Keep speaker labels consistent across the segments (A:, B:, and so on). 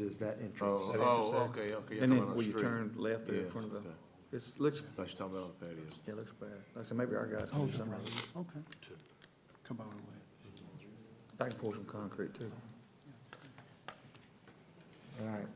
A: is that entrance.
B: Oh, oh, okay, okay. you're
C: And
B: talking
C: then
B: about
C: when you
B: street.
C: turn left there in
B: Yes,
C: front of the,
B: okay.
C: it looks,
B: I was talking about the patio.
C: yeah, it looks bad. Like I said, maybe our guys can do something. about it.
D: Oh, Okay. Come on away.
C: I can pour some concrete too.
A: All right,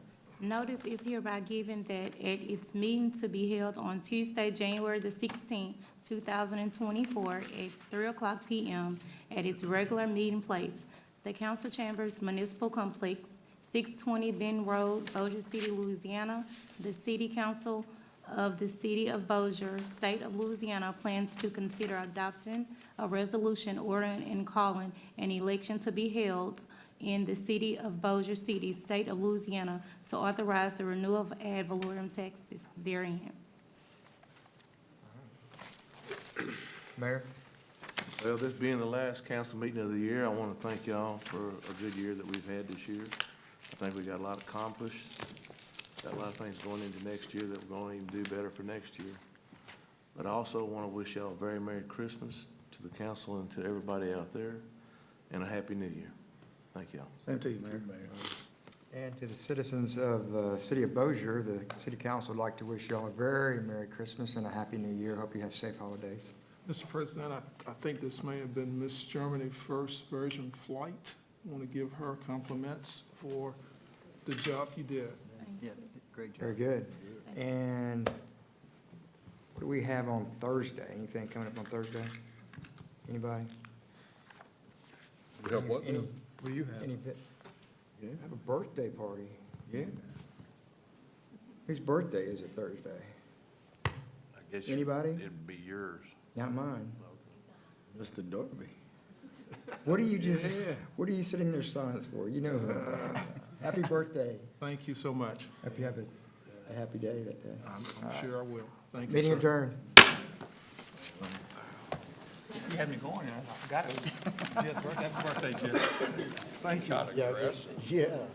E: Notice is hereby given that at its meeting to be held on Tuesday, January the sixteenth, two thousand and twenty-four, at three o'clock PM, at its regular meeting place, the council chambers municipal complex, six twenty Ben Road, Bossier City, Louisiana. The city council of the city of Bossier, state of Louisiana, plans to consider adopting a resolution ordering and calling an election to be held in the city of Bossier City, state of Louisiana, to authorize the renewal of ad valorem taxes therein.
A: Mayor?
B: Well, this being the last council meeting of the year, I want to thank y'all for a good year that we've had this year. I think we got a lot accomplished, got a lot of things going into next year that we're going to even do better for next year. But I also want to wish y'all a very Merry Christmas to the council and to everybody out there, and a Happy New Year. Thank y'all.
C: Same to you, Mayor.
A: And to the citizens of the city of Bossier, the city council would like to wish y'all a very Merry Christmas and a Happy New Year. Hope you have safe holidays.
F: Mr. President, I, I think this may have been Miss Germany's first Virgin flight. I want to give her compliments for the job you did.
C: Yeah, great
A: Very good. And what do we have on Thursday? Anything coming up on Thursday? Anybody?
G: We have what now?
A: Any-
C: What do you
A: Any
C: have?
A: bit?
B: Yeah.
A: I have a birthday party.
B: Yeah.
A: Whose birthday is it Thursday?
H: I guess you-
A: Anybody?
H: It'd be yours.
A: Not mine.
B: Mr. Dorby.
A: What are you just, what are you sitting there silent for? You know who I'm talking about. Happy birthday.
F: Thank you so much. Uh,
A: Hope you have a, a happy day that day.
F: I'm, I'm sure I will. Thank you, sir.
A: Meeting adjourned.
C: You had me going, I got it. Happy birthday, Jeff.
F: Thank you.
H: Not aggressive.
G: Yeah.